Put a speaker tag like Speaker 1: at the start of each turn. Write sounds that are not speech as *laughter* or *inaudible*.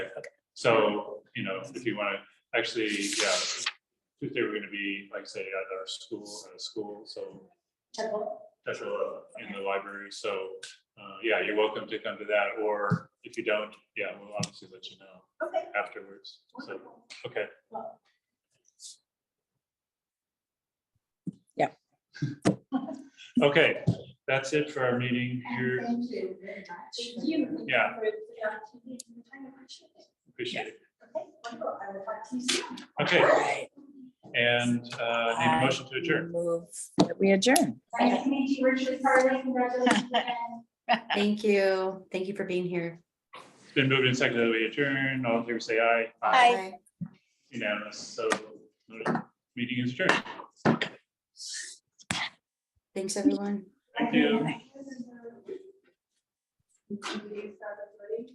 Speaker 1: So, you know, if you want to, actually, yeah, Tuesday, we're going to be, like, say, at our school, at a school, so
Speaker 2: Temple.
Speaker 1: that's a lot in the library, so, uh, yeah, you're welcome to come to that, or if you don't, yeah, we'll obviously let you know
Speaker 2: Okay.
Speaker 1: afterwards, so,
Speaker 2: wonderful.
Speaker 1: okay.
Speaker 3: Yeah.
Speaker 1: *laughs* Okay, that's it for our meeting here,
Speaker 2: Thank you very much. Thank
Speaker 4: you.
Speaker 1: Yeah.
Speaker 4: For the opportunity and the time, I appreciate it.
Speaker 1: appreciate it,
Speaker 2: Okay, wonderful. I will talk to you soon.
Speaker 1: okay, and, uh, need a motion to adjourn.
Speaker 3: Move that we adjourn.
Speaker 4: Nice to meet you, Richard Carly, congratulations again.
Speaker 5: Thank you. Thank you for being here.
Speaker 1: It's Been moved and seconded that we adjourn. All in favor, say aye.
Speaker 3: Aye.
Speaker 1: Unanimous. So meeting is adjourned.
Speaker 5: Thanks, everyone.
Speaker 1: Thank you.
Speaker 2: Thank you.